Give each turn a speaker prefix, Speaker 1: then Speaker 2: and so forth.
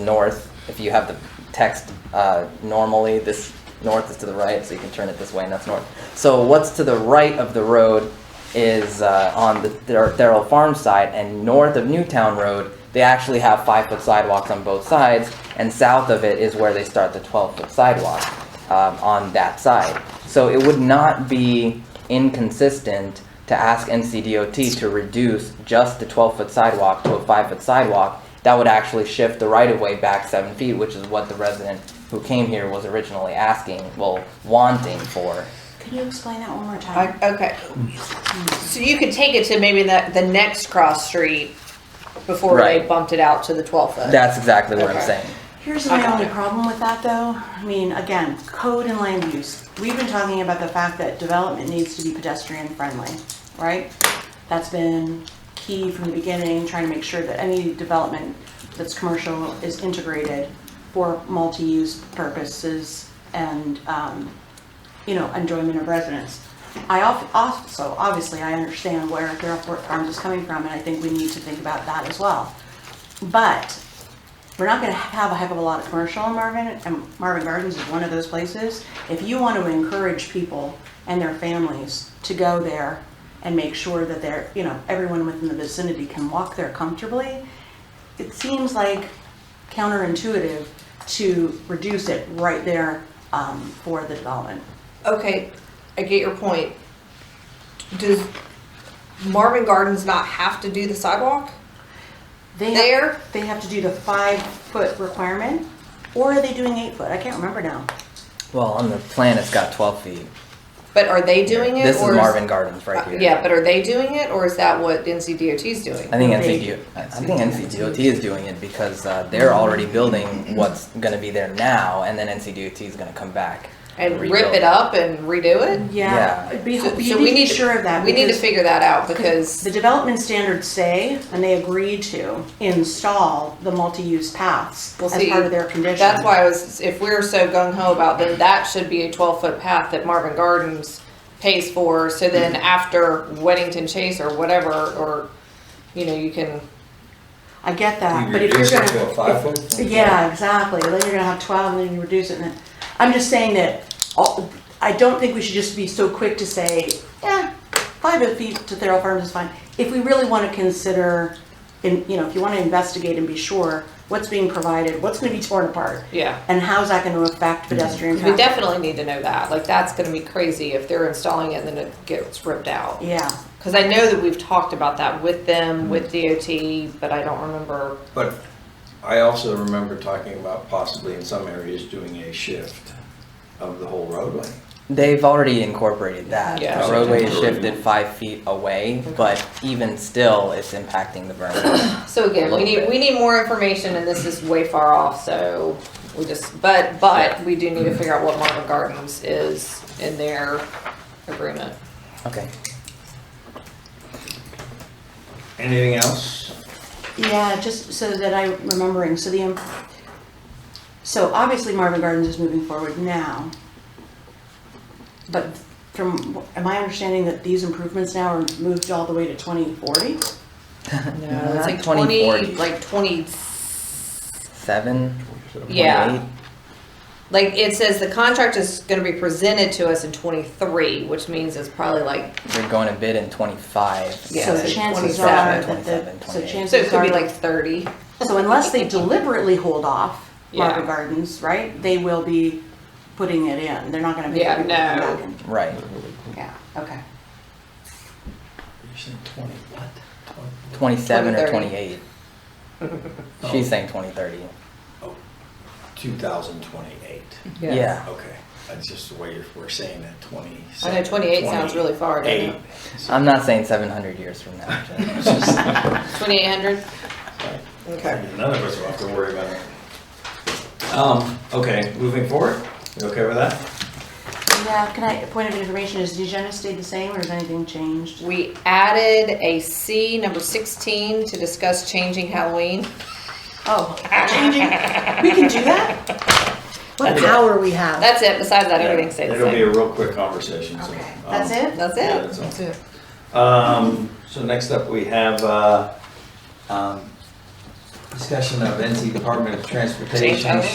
Speaker 1: north. If you have the text uh, normally, this north is to the right, so you can turn it this way, and that's north. So what's to the right of the road is uh, on the Dar- Darrell Farm side, and north of Newtown Road, they actually have five foot sidewalks on both sides, and south of it is where they start the 12 foot sidewalk um, on that side. So it would not be inconsistent to ask NCDOT to reduce just the twelve foot sidewalk to a five foot sidewalk. That would actually shift the right of way back seven feet, which is what the resident who came here was originally asking, well, wanting for.
Speaker 2: Can you explain that one more
Speaker 3: I,
Speaker 2: time?
Speaker 3: okay. So you could take it to maybe the, the next cross street before
Speaker 1: Right.
Speaker 3: they bumped it out to the 12 foot.
Speaker 1: That's exactly what I'm
Speaker 3: Okay.
Speaker 1: saying.
Speaker 2: Here's
Speaker 3: I
Speaker 2: my
Speaker 3: got
Speaker 2: only
Speaker 3: it.
Speaker 2: problem with that though. I mean, again, code and land use. We've been talking about the fact that development needs to be pedestrian friendly, right? That's been key from the beginning, trying to make sure that any development that's commercial is integrated for multi-use purposes and, um, you know, enjoyment of residents. I of- also, obviously, I understand where Gulfport Farms is coming from, and I think we need to think about that as well. But we're not gonna have a heck of a lot of commercial in Marvin, and Marvin Gardens is one of those places. If you want to encourage people and their families to go there and make sure that they're, you know, everyone within the vicinity can walk there comfortably, it seems like counterintuitive to reduce it right there um, for the development.
Speaker 3: Okay, I get your point. Does Marvin Gardens not have to do the sidewalk?
Speaker 2: They
Speaker 3: There?
Speaker 2: They have to do the five-foot requirement, or are they doing eight-foot? I can't remember now.
Speaker 1: Well, on the plan, it's got twelve feet.
Speaker 3: But are they doing it?
Speaker 1: This is
Speaker 3: or
Speaker 1: Marvin Gardens right
Speaker 3: uh,
Speaker 1: here.
Speaker 3: Yeah, but are they doing it or is that what NCDOT is doing?
Speaker 1: I think
Speaker 2: They-
Speaker 1: NCDOT, I think NCDOT is doing it because uh, they're already building what's gonna be there now, and then NCDOT is gonna come back.
Speaker 3: and rip
Speaker 1: rebuild
Speaker 3: it up and redo it?
Speaker 1: Yeah.
Speaker 2: Yeah, be, you
Speaker 3: So-
Speaker 2: need
Speaker 3: so
Speaker 2: to
Speaker 3: we
Speaker 2: be
Speaker 3: need to-
Speaker 2: sure of that.
Speaker 3: We need to
Speaker 2: because-
Speaker 3: figure that out because
Speaker 2: The development standards say, and they agree to, install the multi-use paths
Speaker 3: Well,
Speaker 2: as
Speaker 3: see,
Speaker 2: part of their condition.
Speaker 3: That's why I was, if we're so gung ho about then that should be a twelve foot path that Marvin Gardens pays for, so then
Speaker 2: Mm-hmm.
Speaker 3: after Weddington Chase or whatever, or, you know, you can,
Speaker 2: I get that,
Speaker 4: You
Speaker 2: but if you're
Speaker 4: reduce
Speaker 2: gonna.
Speaker 4: it to a five foot?
Speaker 2: Yeah, exactly, then you're gonna have twelve, and then you reduce it, and then, I'm just saying that, all- I don't think we should just be so quick to say, eh, five feet to Thurl Farms is fine. If we really wanna consider, in, you know, if you wanna investigate and be sure what's being provided, what's gonna be torn apart,
Speaker 3: yeah.
Speaker 2: and how's that gonna affect
Speaker 4: Mm-hmm.
Speaker 2: pedestrian
Speaker 3: We
Speaker 2: traffic?
Speaker 3: definitely need to know that, like, that's gonna be crazy if they're installing it and then it gets ripped out.
Speaker 2: Yeah.
Speaker 3: Cause I know that we've talked about that with
Speaker 2: Mm-hmm.
Speaker 3: them, with DOT, but I don't remember,
Speaker 4: But I also remember talking about possibly in some areas doing a shift of the whole roadway.
Speaker 1: They've already incorporated that.
Speaker 3: Yeah.
Speaker 1: The roadway is shifted five feet away, but even still, it's impacting the burn.
Speaker 3: so again, we need, we need more information and this is way far off, so we just, but, but we do need to figure out what Marvin Gardens is in their agreement.
Speaker 1: Okay.
Speaker 4: Anything else?
Speaker 2: Yeah, just so that I'm remembering, so the, im- so obviously Marvin Gardens is moving forward now. But from, am I understanding that these improvements now are moved all the way to 2040?
Speaker 3: No,
Speaker 1: Not
Speaker 3: it's like twenty,
Speaker 1: 2040.
Speaker 3: like twenty,
Speaker 1: Seven?
Speaker 3: yeah. Like it says the contract is gonna be presented to us in twenty-three, which means it's probably like,
Speaker 1: They're going to bid in twenty-five.
Speaker 3: Yeah,
Speaker 2: So
Speaker 3: so
Speaker 2: chances
Speaker 3: 27,
Speaker 2: are that
Speaker 1: 27,
Speaker 2: the,
Speaker 1: 28.
Speaker 2: so
Speaker 3: so it
Speaker 2: chances
Speaker 3: could be
Speaker 2: are,
Speaker 3: like thirty.
Speaker 2: so unless they deliberately hold off Marvin
Speaker 3: Yeah.
Speaker 2: Gardens, right? They will be putting it in. They're not gonna be.
Speaker 3: Yeah,
Speaker 2: able to come
Speaker 3: no.
Speaker 2: back and-
Speaker 1: Right.
Speaker 2: Yeah, okay.
Speaker 5: You said twenty what? Twenty.
Speaker 1: Twenty-seven or
Speaker 3: 2030.
Speaker 1: twenty-eight. She's saying twenty thirty.
Speaker 4: Oh, Two thousand twenty-eight.
Speaker 1: Yeah.
Speaker 4: Okay, that's just the way we're saying that, twenty.
Speaker 3: I know 28 sounds really far, doesn't it?
Speaker 1: I'm not saying seven hundred years from now, Jen.
Speaker 3: Twenty-eight hundred? Okay.
Speaker 4: None of us will have to worry about it. Um, okay, moving forward, you okay with that?
Speaker 2: Yeah, can I, point of information, is Dejana stayed the same or has anything changed?
Speaker 3: We added a C, number sixteen, to discuss changing Halloween.
Speaker 2: Oh, changing, we can do that? What power we have.
Speaker 3: That's it, besides that, everything stays the
Speaker 4: It'll be
Speaker 3: same.
Speaker 4: a real quick conversation, so.
Speaker 2: Okay,
Speaker 4: um,
Speaker 2: that's it?
Speaker 3: That's
Speaker 4: Yeah,
Speaker 3: it.
Speaker 4: that's all. Um, so next up, we have, uh, um, Discussion of NC Department of Transportation
Speaker 3: Change.